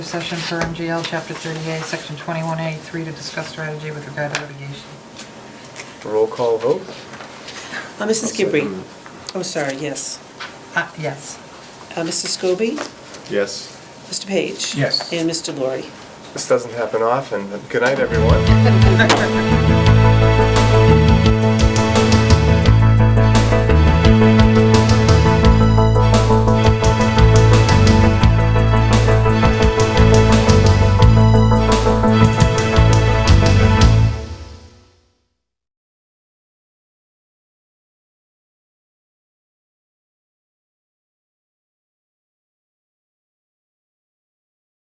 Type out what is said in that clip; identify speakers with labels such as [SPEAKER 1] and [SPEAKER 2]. [SPEAKER 1] Session for MGL Chapter 38, Section 21A3 to discuss strategy with regard to litigation.
[SPEAKER 2] Roll call vote?
[SPEAKER 3] Uh, Mrs. Gibbrey? Oh, sorry, yes.
[SPEAKER 1] Uh, Yes.
[SPEAKER 3] Uh, Mr. Scobie?
[SPEAKER 2] Yes.
[SPEAKER 3] Mr. Page?
[SPEAKER 4] Yes.
[SPEAKER 3] And Mr. Laurie?
[SPEAKER 2] This doesn't happen often, but good night, everyone.